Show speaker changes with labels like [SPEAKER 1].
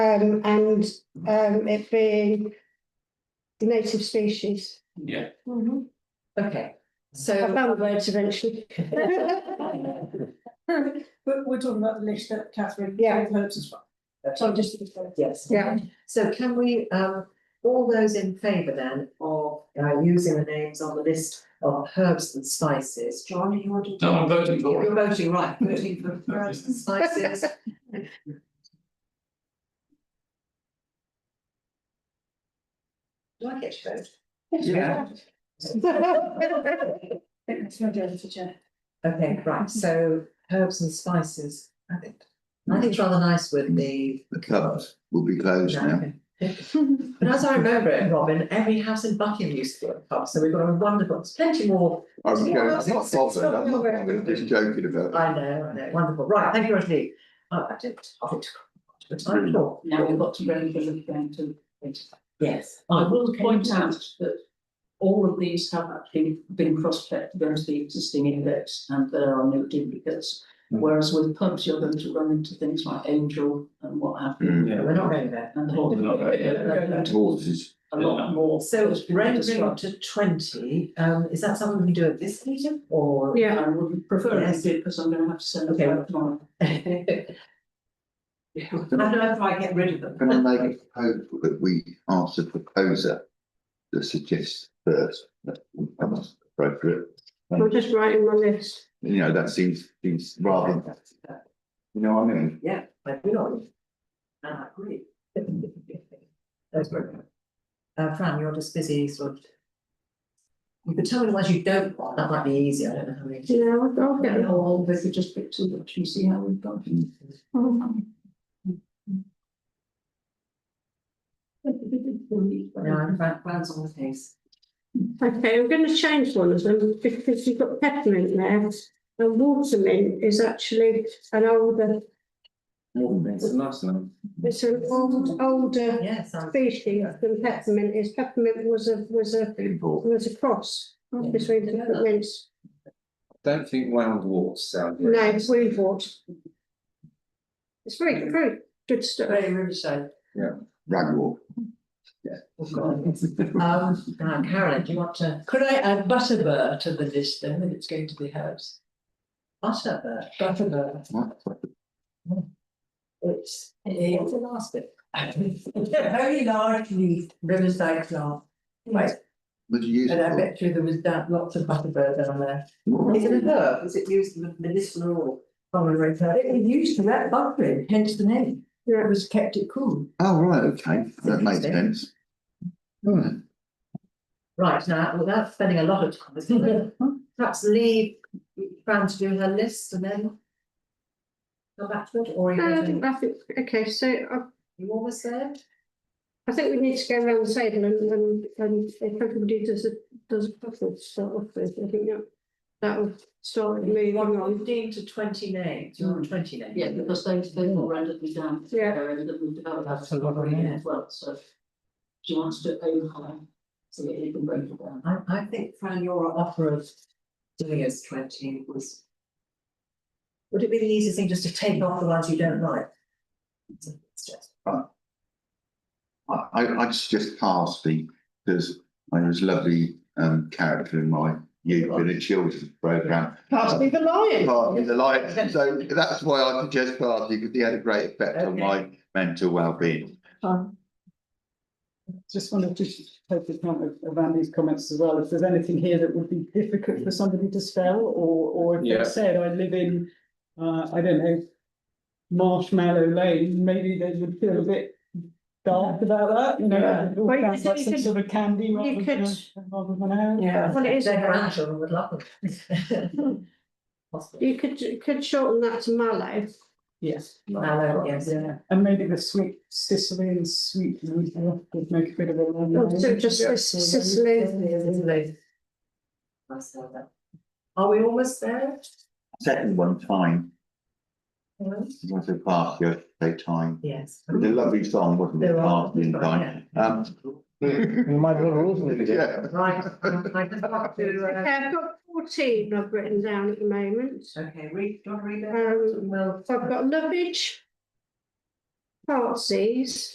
[SPEAKER 1] um, and, um, it being native species.
[SPEAKER 2] Yeah,
[SPEAKER 1] I
[SPEAKER 3] Okay, so,
[SPEAKER 1] found words eventually.
[SPEAKER 4] But we're talking about the list that Catherine.
[SPEAKER 1] Yeah.
[SPEAKER 4] Hopes as well.
[SPEAKER 1] So I'm just.
[SPEAKER 3] yes.
[SPEAKER 1] Yeah.
[SPEAKER 3] So can we, um, all those in favour then of uh, using the names on the list of herbs and spices? John, you want to?
[SPEAKER 2] No, I'm voting for it.
[SPEAKER 3] You're voting, right, voting for herbs and spices. Do I get to vote?
[SPEAKER 2] Yeah.
[SPEAKER 4] It's your job to check.
[SPEAKER 3] Okay, right, so herbs and spices, I think, I think it's rather nice with the.
[SPEAKER 5] The cupboards will be closed now.
[SPEAKER 3] But as I remember it, Robin, every house in Buckingham used to be a pub, so we've got a wonderful, there's plenty more,
[SPEAKER 5] I'm joking, I'm not
[SPEAKER 3] Six, six,
[SPEAKER 5] bothered, I'm not
[SPEAKER 3] twelve.
[SPEAKER 5] bothered, just joking about
[SPEAKER 3] I know, I know, wonderful, right, thank you, Rosalie. Uh, I did, I think, but time at all.
[SPEAKER 6] Now we've got to really be going to.
[SPEAKER 3] Yes.
[SPEAKER 6] I will point out that all of these have actually been cross-checked against the existing index and there are no duplicates.
[SPEAKER 5] Hmm.
[SPEAKER 6] Whereas with pubs, you're going to run into things like angel and what have
[SPEAKER 5] it.
[SPEAKER 6] you.
[SPEAKER 5] Mm.
[SPEAKER 3] No, We're not going there.
[SPEAKER 6] And the whole.
[SPEAKER 2] Not right, yeah.
[SPEAKER 6] They're going to
[SPEAKER 5] Horses,
[SPEAKER 6] A lot more.
[SPEAKER 3] So
[SPEAKER 6] It's been
[SPEAKER 3] rendering
[SPEAKER 6] disrupted.
[SPEAKER 3] to twenty, um, is that something we can do at this meeting or?
[SPEAKER 1] Yeah.
[SPEAKER 6] I would prefer it
[SPEAKER 3] Yes.
[SPEAKER 6] did because I'm going to have to send
[SPEAKER 3] Okay.
[SPEAKER 6] it out tomorrow.
[SPEAKER 3] I don't know if I get rid of them.
[SPEAKER 5] can I make a proposal that we ask the proposer to suggest first? That would come as appropriate,
[SPEAKER 1] I'm just writing my list.
[SPEAKER 5] you know, that seems, seems rather, you know what I mean?
[SPEAKER 3] Yeah, I do not. And I agree. That's brilliant. Uh, Fran, you're just busy sort of. You could tell me the ones you don't want, that might be easier, I don't know how many.
[SPEAKER 1] Yeah, I'll- I'll
[SPEAKER 6] Okay,
[SPEAKER 1] get it.
[SPEAKER 6] how old they could just pick two, actually see how we've got.
[SPEAKER 3] No, I'm Fran, Fran's on the case.
[SPEAKER 1] Okay, I'm going to change one of them because you've got peppermint there. And watermint is actually an older,
[SPEAKER 5] It's a nice name.
[SPEAKER 1] it's an old, older
[SPEAKER 3] Yes, I'm.
[SPEAKER 1] species than peppermint is. Peppermint was a, was a,
[SPEAKER 5] Import.
[SPEAKER 1] was a cross between the peppermints.
[SPEAKER 7] Don't think round warts sound. very
[SPEAKER 1] No,
[SPEAKER 7] nice.
[SPEAKER 1] we bought. It's very, very good stuff.
[SPEAKER 3] Very Riverside.
[SPEAKER 5] Ragwort.
[SPEAKER 3] Oh, God. Um, now, Carolyn, do you want to
[SPEAKER 8] Could I add Butterbur to the list then, when it's going to be herbs?
[SPEAKER 3] utter the,
[SPEAKER 8] Butterbur, it's a
[SPEAKER 3] what's the last bit?
[SPEAKER 8] very large leaf riverside plant. Right,
[SPEAKER 5] Would you use
[SPEAKER 8] and I
[SPEAKER 5] it
[SPEAKER 8] bet you there was that lots of butterbur down there.
[SPEAKER 5] for?
[SPEAKER 3] Is it a herb? Is it used medicinal or?
[SPEAKER 8] Common roadside, it was used for that buffering, hence the name.
[SPEAKER 1] Yeah.
[SPEAKER 8] It was kept it cool.
[SPEAKER 5] Oh, right, okay, that makes
[SPEAKER 3] Interesting.
[SPEAKER 5] sense. Right.
[SPEAKER 3] Right, now, without spending a lot of time, isn't it? perhaps leave Fran to do her list and then come back to it, or are you
[SPEAKER 1] Uh, I
[SPEAKER 3] going
[SPEAKER 6] Um,
[SPEAKER 1] think,
[SPEAKER 3] to-
[SPEAKER 1] I think, okay, so I,
[SPEAKER 3] you almost there?
[SPEAKER 1] I think we need to go around the table and, and, and if everybody does a, does a puzzle to start off with, I think that, that'll start moving on.
[SPEAKER 3] Fifteen to twenty names, you want twenty names?
[SPEAKER 6] Mm. Yeah, because they, they all rendered um, me down.
[SPEAKER 1] Yeah.
[SPEAKER 6] They rendered me down.
[SPEAKER 3] That's a lot of names.
[SPEAKER 6] As well, so she wants to overlay, so that you can break it down.
[SPEAKER 3] I, I think Fran, your offer of doing us twenty was. Would it be the easiest thing just to take off the ones you don't like? It's just-
[SPEAKER 5] I, I, I just just passed the, because I was a lovely um character in my youth in a children's programme. Parsley
[SPEAKER 3] the lion.
[SPEAKER 5] Party the light, so that's why I suggest Parsley, because he had a great effect on my mental well-being.
[SPEAKER 9] Um, Just wanted to take account of of Andy's comments as well, if there's anything here that would be difficult for somebody to spell, or, or if
[SPEAKER 7] Yeah.
[SPEAKER 9] they said, I live in, uh, I don't know, Marshmallow Lane, maybe they would feel a bit dark about that, you
[SPEAKER 8] Yeah.
[SPEAKER 9] know, it all
[SPEAKER 1] Well, you
[SPEAKER 9] sounds
[SPEAKER 1] could-
[SPEAKER 9] like
[SPEAKER 1] you
[SPEAKER 9] some
[SPEAKER 1] could-
[SPEAKER 9] sort of candy
[SPEAKER 1] you
[SPEAKER 9] rather than, a- rather than an herb.
[SPEAKER 8] Yeah.
[SPEAKER 1] Well, it is, a
[SPEAKER 3] Their
[SPEAKER 1] brand.
[SPEAKER 3] grandchildren would love them. Possibly.
[SPEAKER 1] you could, you could shorten that to mallow.
[SPEAKER 9] Yes.
[SPEAKER 3] Mallow, yes.
[SPEAKER 9] Yeah, and maybe the sweet Sicilian sweet root would make a bit of a. long
[SPEAKER 1] Or
[SPEAKER 9] name.
[SPEAKER 1] So just Sicily,
[SPEAKER 3] Myself then. Are we almost there?
[SPEAKER 5] Second one, time, it was a party, I say time,
[SPEAKER 3] Yes.
[SPEAKER 5] it was a lovely song, wasn't it,
[SPEAKER 3] There are.
[SPEAKER 5] Parsley and Time? Um,
[SPEAKER 7] Might as well rules it again.
[SPEAKER 5] yeah.
[SPEAKER 3] Right, I just want to,
[SPEAKER 1] okay,
[SPEAKER 3] uh,
[SPEAKER 1] I've got fourteen I've written down at the moment.
[SPEAKER 3] okay, read, do you want to read that?
[SPEAKER 1] Um,
[SPEAKER 3] Well,
[SPEAKER 1] So I've got lovage, Partsies.